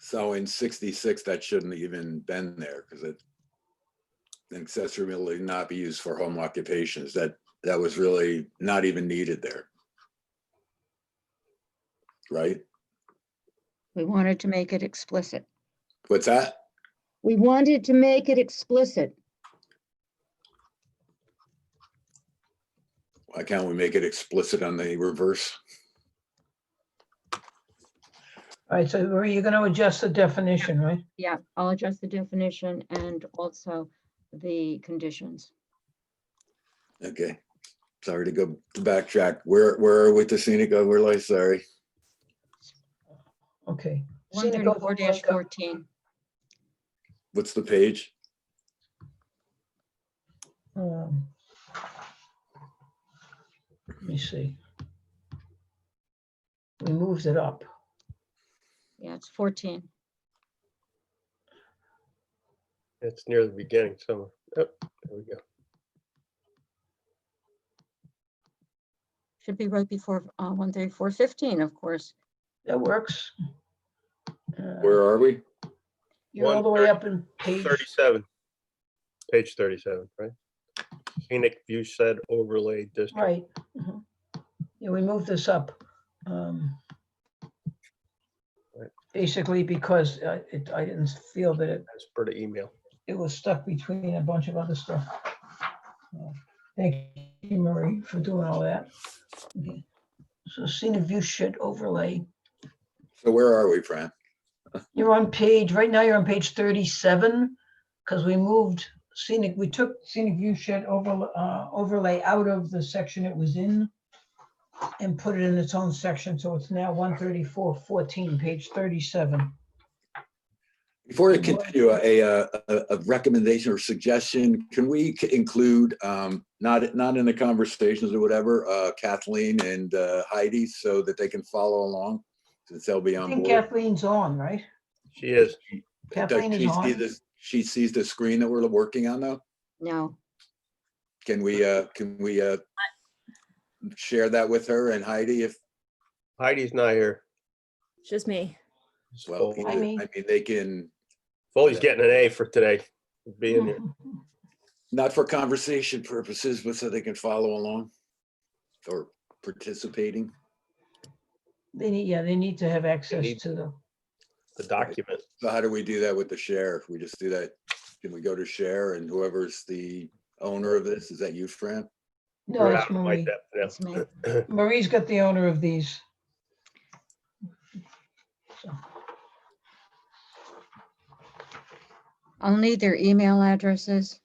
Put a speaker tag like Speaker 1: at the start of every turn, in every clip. Speaker 1: So in sixty-six, that shouldn't even been there because it an accessory building not be used for home occupations. That, that was really not even needed there. Right?
Speaker 2: We wanted to make it explicit.
Speaker 1: What's that?
Speaker 2: We wanted to make it explicit.
Speaker 1: Why can't we make it explicit on the reverse?
Speaker 3: All right, so Marie, you're gonna adjust the definition, right?
Speaker 2: Yeah, I'll adjust the definition and also the conditions.
Speaker 1: Okay. Sorry to go to backtrack. Where, where are we to scenic overlay? Sorry.
Speaker 3: Okay.
Speaker 2: One
Speaker 3: Scenic
Speaker 2: thirty-four
Speaker 3: overlook of-
Speaker 2: fourteen,
Speaker 1: What's the page?
Speaker 3: um, Let me see. We moved it up.
Speaker 2: yeah, it's fourteen.
Speaker 4: It's near the beginning somewhere. Oh, there we go.
Speaker 2: Should be right before uh, one thirty-four fifteen, of course.
Speaker 3: That works. Uh,
Speaker 1: Where are we?
Speaker 3: You're all the way up in page,
Speaker 4: Thirty-seven. Page thirty-seven, right? Scenic view said overlay district.
Speaker 3: right. mhm. Yeah, we moved this up. um,
Speaker 4: Right.
Speaker 3: Basically because uh, it, I didn't feel that it,
Speaker 4: That's per the email.
Speaker 3: it was stuck between a bunch of other stuff. Uh, Thank you, Marie, for doing all that. Okay. So scenic view shed overlay.
Speaker 1: So where are we, Fran?
Speaker 3: You're on page, right now you're on page thirty-seven, because we moved scenic, we took scenic view shed over, uh, overlay out of the section it was in and put it in its own section, so it's now one thirty-four fourteen, page thirty-seven.
Speaker 1: Before I
Speaker 3: Good morning.
Speaker 1: continue, a, uh, a, a recommendation or suggestion, can we c- include, um, not, not in the conversations or whatever, uh, Kathleen and uh, Heidi so that they can follow along? Since they'll be
Speaker 3: I
Speaker 1: on
Speaker 3: think
Speaker 1: board.
Speaker 3: Kathleen's on, right?
Speaker 4: She is.
Speaker 1: Does
Speaker 3: Kathleen
Speaker 1: she
Speaker 3: is
Speaker 1: see
Speaker 3: on.
Speaker 1: this- She sees the screen that we're working on though?
Speaker 2: No,
Speaker 1: Can we, uh, can we, uh, share that with her and Heidi if,
Speaker 4: Heidi's not here.
Speaker 5: It's just me.
Speaker 4: It's
Speaker 1: well,
Speaker 4: Foley.
Speaker 1: either- I
Speaker 3: Heidi.
Speaker 1: mean, they can,
Speaker 4: Foley's getting an A for today, for being
Speaker 3: Mm.
Speaker 4: here.
Speaker 1: not for conversation purposes, but so they can follow along or participating.
Speaker 3: They need, yeah, they need to have access
Speaker 4: need-
Speaker 3: to the,
Speaker 4: The document.
Speaker 1: So how do we do that with the share? We just do that, can we go to share and whoever's the owner of this, is that you, Fran?
Speaker 3: no,
Speaker 4: We're
Speaker 3: it's
Speaker 4: out of my
Speaker 3: Marie.
Speaker 4: depth now.
Speaker 2: it's me.
Speaker 3: Marie's got the owner of these. So,
Speaker 2: I'll need their email addresses.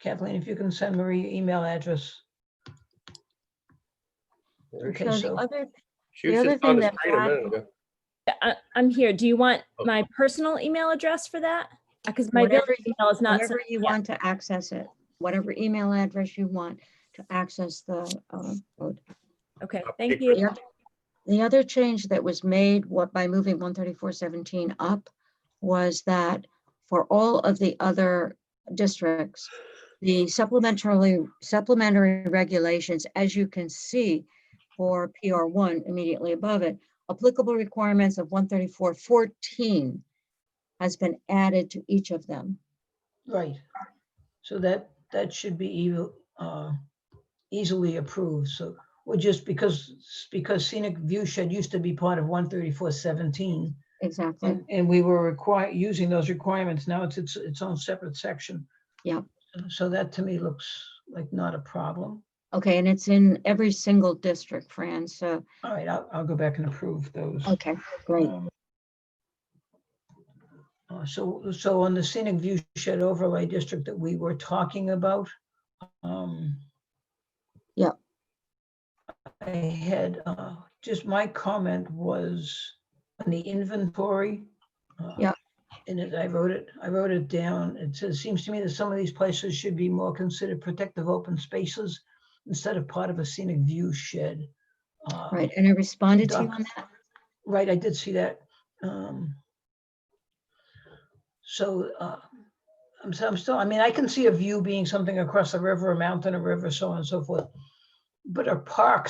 Speaker 3: Kathleen, if you can send Marie your email address. Okay,
Speaker 2: So the
Speaker 3: so-
Speaker 2: other,
Speaker 4: She
Speaker 2: The
Speaker 4: was
Speaker 2: other
Speaker 4: just on
Speaker 2: thing
Speaker 4: the
Speaker 2: that
Speaker 4: screen a minute
Speaker 2: Brad-
Speaker 4: ago.
Speaker 5: I, Uh, I'm here. Do you want
Speaker 4: Oh.
Speaker 5: my personal email address for that? Because my
Speaker 2: Whatever
Speaker 5: business
Speaker 2: you-
Speaker 5: email is not,
Speaker 2: whatever
Speaker 5: sent
Speaker 2: you
Speaker 5: yet.
Speaker 2: want to access it, whatever email address you want to access the uh, code.
Speaker 5: okay,
Speaker 4: I'll
Speaker 5: thank
Speaker 4: pick
Speaker 5: you.
Speaker 2: The oth- the other change that was made, what, by moving one thirty-four seventeen up, was that for all of the other districts, the supplementary, supplementary regulations, as you can see, for PR one immediately above it, applicable requirements of one thirty-four fourteen has been added to each of them.
Speaker 3: Right. So that, that should be evil, uh, easily approved. So we're just because, because scenic view shed used to be part of one thirty-four seventeen.
Speaker 2: Exactly.
Speaker 3: And, and we were required, using those requirements. Now it's its, its own separate section.
Speaker 2: Yep.
Speaker 3: So that to me looks like not a problem.
Speaker 2: Okay, and it's in every single district, Fran, so,
Speaker 3: All right, I'll, I'll go back and approve those.
Speaker 2: okay, great.
Speaker 3: Um, uh, So, so on the scenic view shed overlay district that we were talking about. um,
Speaker 2: Yep.
Speaker 3: I had, uh, just my comment was on the inventory. uh,
Speaker 2: Yep.
Speaker 3: And it- I wrote it, I wrote it down. It says, seems to me that some of these places should be more considered protective open spaces instead of part of a scenic view shed. Uh,
Speaker 2: Right, and I responded to you
Speaker 3: Doc.
Speaker 2: on that.
Speaker 3: Right, I did see that. um, So uh, I'm, so I'm still, I mean, I can see a view being something across a river, a mountain, a river, so on and so forth. But a park